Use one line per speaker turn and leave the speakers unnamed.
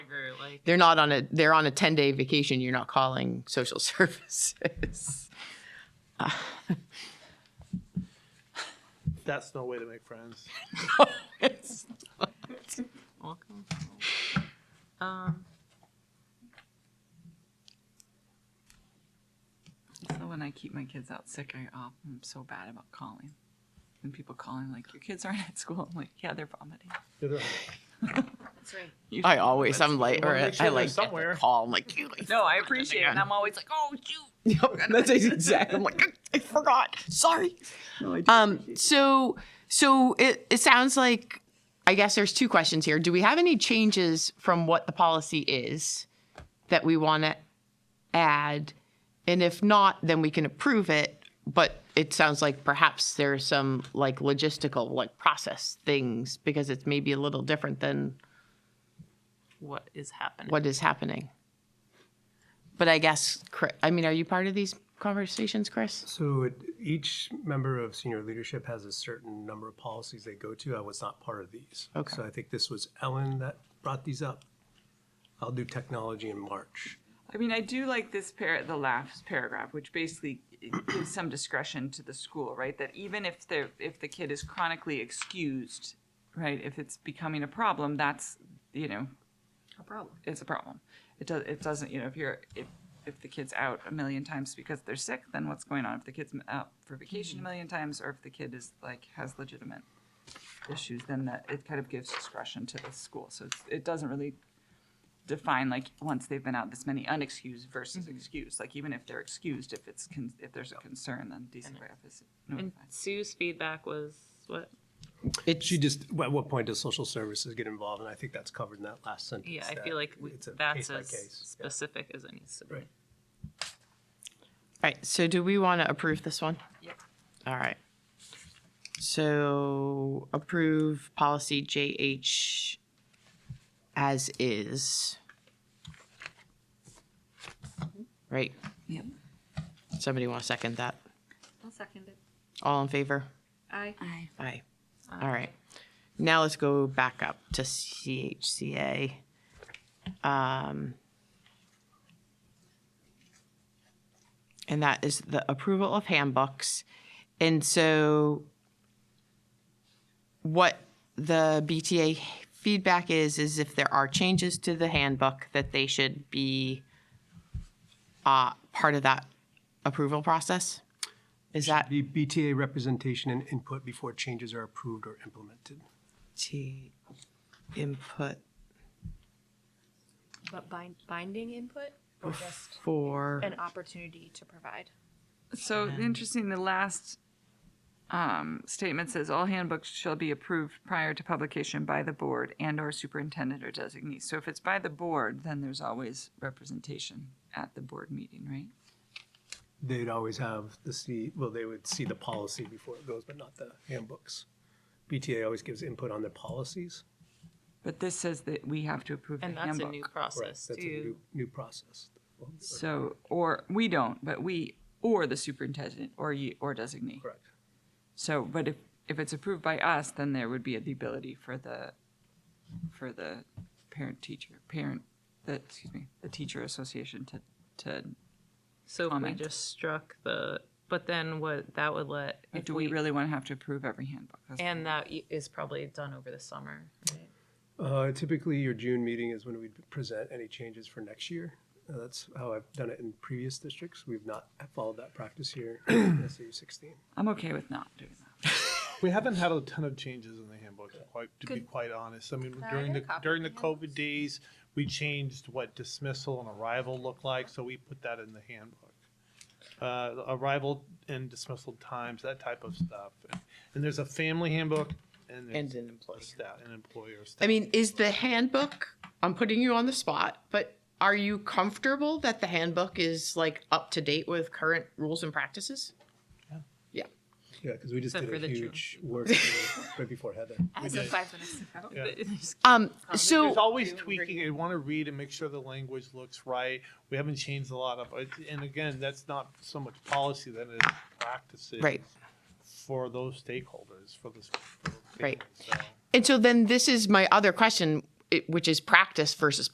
like,
They're not on a, they're on a 10-day vacation. You're not calling social services.
That's no way to make friends.
It's not. Welcome home. Um,
so when I keep my kids out sick, I, oh, I'm so bad about calling. And people calling like, your kids aren't at school. I'm like, yeah, they're vomiting.
That's right.
You-
I always, I'm like,
wanna
or
make sure
I
they're
like get
somewhere.
the call. I'm like, you.
No, I appreciate it. And I'm always like, oh, shoot.
Yep, that's exactly. I'm like, I I forgot. Sorry. Um, so, so it, it sounds like, I guess there's two questions here. Do we have any changes from what the policy is that we want to add? And if not, then we can approve it. But it sounds like perhaps there's some like logistical, like process things because it's maybe a little different than
what is happening.
what is happening. But I guess, Chri- I mean, are you part of these conversations, Chris?
So it, each member of senior leadership has a certain number of policies they go to. I was not part of these.
Okay.
So I think this was Ellen that brought these up. I'll do technology in March.
I mean, I do like this par- the last paragraph, which basically gives some discretion to the school, right? That even if the if the kid is chronically excused, right, if it's becoming a problem, that's you know
A problem.
it's a problem. It does. It doesn't. You know, if you're if if the kid's out a million times because they're sick, then what's going on? If the kid's out for vacation
Mm-hmm.
a million times, or if the kid is like has legitimate issues, then that it kind of gives discretion to the school. So it's, it doesn't really define like once they've been out this many unexcused versus excused. Like even if they're excused, if it's con- if there's a concern, then DCRF is
And
notified.
Sue's feedback was what?
She just, at what point does social services get involved? And I think that's covered in that last sentence.
Yeah, I
that
feel like we,
it's a
that's as
case-by-case. Yeah.
specific as it needs to be.
Right.
All right, so do we want to approve this one?
Yep.
All right. So approve policy JH as is. Right,
Yep.
somebody want to second that?
I'll second it.
All in favor?
Aye.
Aye.
Aye. All right. Now let's go back up to CHCA. Um, And that is the approval of handbooks. And so what the BTA feedback is, is if there are changes to the handbook, that they should be uh, part of that approval process? Is that?
The BTA representation and input before changes are approved or implemented.
T input
But bind, binding input or just
for,
an opportunity to provide?
So interesting. The last um, statement says all handbooks shall be approved prior to publication by the board and/or superintendent or designee. So if it's by the board, then there's always representation at the board meeting, right?
They'd always have the see, well, they would see the policy before it goes, but not the handbooks. BTA always gives input on their policies.
But this says that we have to approve the
And that's a new
handbook.
Right,
process
That's a
too.
new, new process.
So, or we don't, but we or the superintendent or you or designee.
Correct.
So, but if if it's approved by us, then there would be the ability for the for the parent teacher parent the excuse me the teacher association to to
So if we
Comment.
just struck the, but then what, that would let,
like,
if
do we really want to have to approve every handbook? That's-
and that y- is probably done over the summer. right?
Uh, Typically, your June meeting is when we present any changes for next year. Uh, That's how I've done it in previous districts. We've not followed that practice here in SAU 16.
I'm okay with not doing that.
We haven't had a ton of changes in the handbook, quite, to be
Good.
quite honest. I mean,
I
during
got a
the,
copy of
during the
the handbooks.
COVID days, we changed what dismissal and arrival looked like, so we put that in the handbook. Uh, arrival and dismissal times, that type of stuff. And there's a family handbook and
and
there's
an
a
employee.
staff, an employer.
I
staff
mean, is the handbook, I'm putting you on the spot, but are you comfortable that the handbook is like up to date with current rules and practices?
Yeah, because we just
Except
did a
for the June.
huge work day right before Heather.
As of five minutes ago.
Yeah.
Um,
There's
so,
always tweaking. You want to read and make sure the language looks right. We haven't changed a lot of, uh, and again, that's not so much policy than it is practices.
Right.
For those stakeholders, for the.
Right.
So-
and so then this is my other question, it- which is practice versus